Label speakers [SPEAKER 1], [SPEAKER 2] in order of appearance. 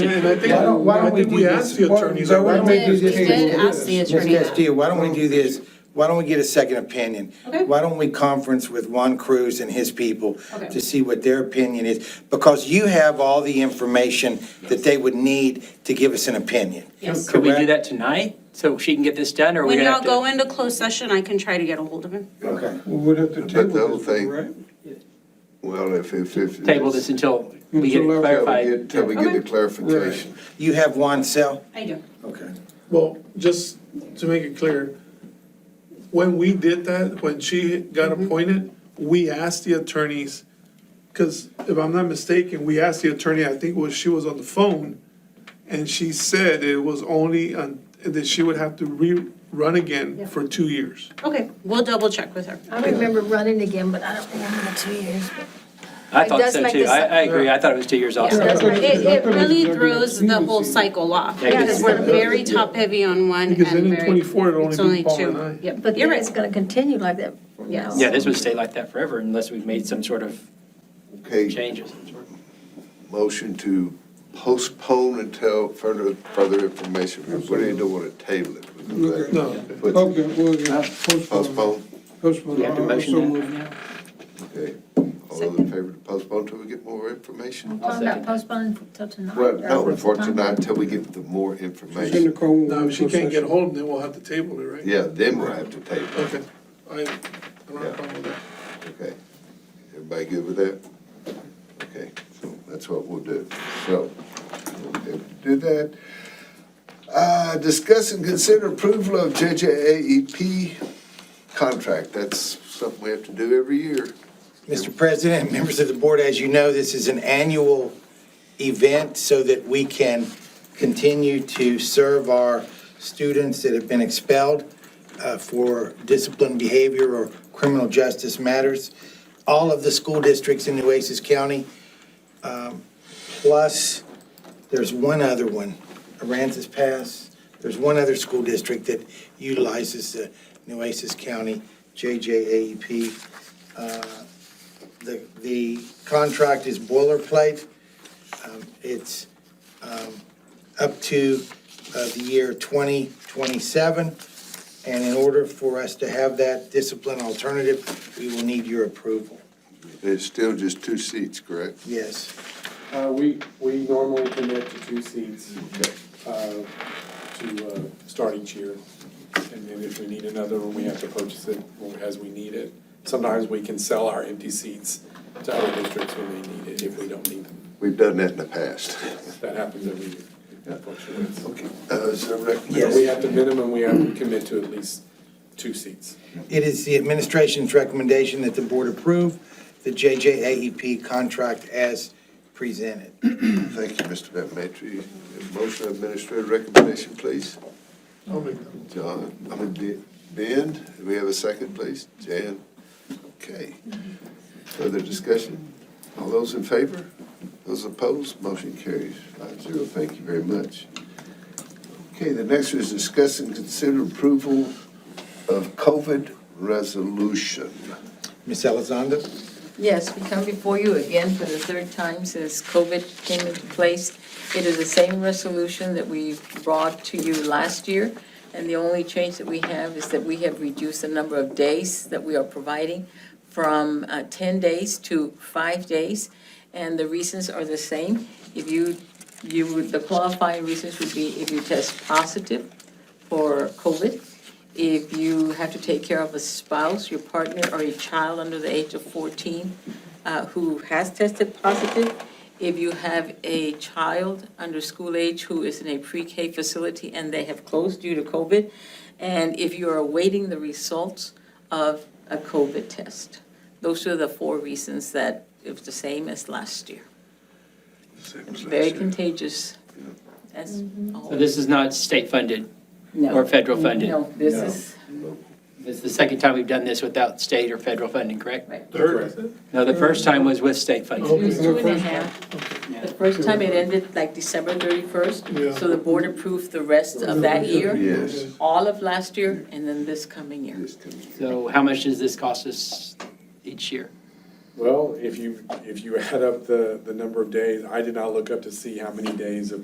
[SPEAKER 1] And I think,
[SPEAKER 2] Why don't- why
[SPEAKER 1] I
[SPEAKER 2] don't we
[SPEAKER 1] think
[SPEAKER 2] do
[SPEAKER 1] we
[SPEAKER 2] this?
[SPEAKER 1] asked the
[SPEAKER 2] Why-
[SPEAKER 1] attorneys.
[SPEAKER 2] why
[SPEAKER 1] that-
[SPEAKER 2] don't we do this?
[SPEAKER 3] We did ask the
[SPEAKER 2] Yes.
[SPEAKER 3] attorney
[SPEAKER 4] Ms.
[SPEAKER 3] that.
[SPEAKER 4] Castillo, why don't we do this? Why don't we get a second opinion?
[SPEAKER 3] Okay.
[SPEAKER 4] Why don't we conference with Juan Cruz and his people
[SPEAKER 3] Okay.
[SPEAKER 4] to see what their opinion is? Because you have all the information that they would need to give us an opinion.
[SPEAKER 3] Yes.
[SPEAKER 5] Could we do
[SPEAKER 4] Correct?
[SPEAKER 5] that tonight, so she can get this done, or are we
[SPEAKER 3] When
[SPEAKER 5] gonna have
[SPEAKER 3] y'all
[SPEAKER 5] to?
[SPEAKER 3] go into closed session, I can try to get a hold of him.
[SPEAKER 4] Okay.
[SPEAKER 2] We would have to
[SPEAKER 6] But
[SPEAKER 2] table
[SPEAKER 6] the other
[SPEAKER 2] this,
[SPEAKER 6] thing-
[SPEAKER 2] right?
[SPEAKER 6] Well, if, if, if.
[SPEAKER 5] Table this until we get
[SPEAKER 2] Until I-
[SPEAKER 5] it
[SPEAKER 6] Till we
[SPEAKER 5] clarified.
[SPEAKER 6] get- till we get the
[SPEAKER 3] Okay.
[SPEAKER 6] clarification.
[SPEAKER 4] You have Juan's cell?
[SPEAKER 3] I do.
[SPEAKER 4] Okay.
[SPEAKER 1] Well, just to make it clear, when we did that, when she got
[SPEAKER 2] Mm-hmm.
[SPEAKER 1] appointed, we asked the attorneys, because if I'm not mistaken, we asked the attorney, I think was, she was on the phone, and she said it was only, on- that she would have to rerun again for two years.
[SPEAKER 3] Okay, we'll double check with her.
[SPEAKER 7] I remember running again, but I don't remember the two years.
[SPEAKER 5] I
[SPEAKER 7] It
[SPEAKER 5] thought
[SPEAKER 7] does
[SPEAKER 5] so
[SPEAKER 7] make
[SPEAKER 5] too,
[SPEAKER 7] this-
[SPEAKER 5] I, I agree, I thought it was two years
[SPEAKER 7] Yeah,
[SPEAKER 5] also.
[SPEAKER 7] that's right.
[SPEAKER 3] It, it really throws the whole cycle off,
[SPEAKER 5] Yeah, 'cause-
[SPEAKER 3] because we're very top-heavy on one and
[SPEAKER 1] Because then in
[SPEAKER 3] very-
[SPEAKER 1] 24 it'll only
[SPEAKER 3] it's
[SPEAKER 1] be Paul and I.
[SPEAKER 3] two. Yep,
[SPEAKER 7] But
[SPEAKER 3] you're
[SPEAKER 7] then it's
[SPEAKER 3] right.
[SPEAKER 7] gonna continue like that. from now
[SPEAKER 3] Yes.
[SPEAKER 7] on.
[SPEAKER 5] Yeah, this would stay like that forever unless we've made some sort of
[SPEAKER 6] Okay,
[SPEAKER 5] changes.
[SPEAKER 6] motion to postpone until further, further information. What do you don't want to table it?
[SPEAKER 1] No.
[SPEAKER 6] But
[SPEAKER 2] Okay, well, yeah, postpone.
[SPEAKER 6] Postpone,
[SPEAKER 2] Postpone.
[SPEAKER 5] We have to
[SPEAKER 2] I- I
[SPEAKER 5] motion
[SPEAKER 2] Uh, so
[SPEAKER 5] that
[SPEAKER 2] moved.
[SPEAKER 5] now.
[SPEAKER 6] okay. All those in favor to postpone till we get more information?
[SPEAKER 7] Talking
[SPEAKER 5] second
[SPEAKER 7] about
[SPEAKER 5] that.
[SPEAKER 7] postponing till tonight.
[SPEAKER 6] Well,
[SPEAKER 7] or
[SPEAKER 6] no, for
[SPEAKER 7] sometime.
[SPEAKER 6] tonight, till we get the more
[SPEAKER 2] It's in the
[SPEAKER 6] information.
[SPEAKER 2] call. we'll
[SPEAKER 1] Now, if she
[SPEAKER 2] go
[SPEAKER 1] can't get
[SPEAKER 2] session.
[SPEAKER 1] hold, then we'll have to table it, right?
[SPEAKER 6] Yeah, then we'll have to table it,
[SPEAKER 1] Okay, I, I don't have a problem with that.
[SPEAKER 6] okay. Everybody good with that? Okay, so that's what we'll do. So, we'll do that. Uh, discuss and consider approval of JJAEP E contract. That's something we have to do every year.
[SPEAKER 4] Mr. President, members of the board, as you know, this is an annual event so that we can continue to serve our students that have been expelled uh, for disciplined behavior or criminal justice matters. All of the school districts in Nueces County, um, plus, there's one other one, Aransas Pass. There's one other school district that utilizes the Nueces County JJAEP the, the contract is boilerplate. Um, It's um, up to uh, the year 2027. And in order for us to have that discipline alternative, we will need your approval.
[SPEAKER 6] There's still just two seats, correct?
[SPEAKER 4] Yes.
[SPEAKER 8] Uh, we, we normally commit to two seats,
[SPEAKER 6] Okay.
[SPEAKER 8] uh, to, uh, start each year. And then if we need another one, we have to purchase it as we need it. Sometimes we can sell our empty seats to other districts when they need it, if we don't need them.
[SPEAKER 6] We've done that in the past.
[SPEAKER 8] That happens every year. It fluctuates.
[SPEAKER 6] Okay. Uh, is there a recommendation?
[SPEAKER 4] Yes.
[SPEAKER 8] We have to minimum, we have to commit to at least two seats.
[SPEAKER 4] It is the administration's recommendation that the board approve the JJAEP E contract as presented.
[SPEAKER 6] Thank you, Mr. Bettmatry. Motion of administrative recommendation, please.
[SPEAKER 1] I'll make that.
[SPEAKER 6] John, I mean, Ben- Ben, do we have a second, please? Jan? Okay. Further discussion? All those in favor? Those opposed? Motion carries five zero. Thank you very much. Okay, the next is discuss and consider approval of COVID resolution.
[SPEAKER 4] Ms. Elizondo?
[SPEAKER 9] Yes, we come before you again for the third time since COVID came into place. It is the same resolution that we brought to you last year, and the only change that we have is that we have reduced the number of days that we are providing from uh, 10 days to five days, and the reasons are the same. If you, you, would the qualifying reasons would be if you test positive for COVID, if you have to take care of a spouse, your partner, or a child under the age of 14 uh, who has tested positive, if you have a child under school age who is in a pre-K facility and they have closed due to COVID, and if you are awaiting the results of a COVID test. Those are the four reasons that it was the same as last year. Very contagious, as
[SPEAKER 5] So
[SPEAKER 9] always.
[SPEAKER 5] this is not state-funded
[SPEAKER 9] No.
[SPEAKER 5] or federal-funded.
[SPEAKER 9] No, this is,
[SPEAKER 5] This is the second time we've done this without state or federal funding, correct?
[SPEAKER 1] Third, is it?
[SPEAKER 5] No, the first time was with state
[SPEAKER 1] oh.
[SPEAKER 5] funding.
[SPEAKER 9] it was two and a half. The first time it ended like December
[SPEAKER 1] Yeah.
[SPEAKER 9] 31st, so the board approved the rest of that year,
[SPEAKER 6] Yes.
[SPEAKER 9] all of last year, and then this coming year.
[SPEAKER 6] Yes, come here.
[SPEAKER 5] So how much does this cost us each year?
[SPEAKER 8] Well, if you, if you add up the, the number of days, I did not look up to see how many days of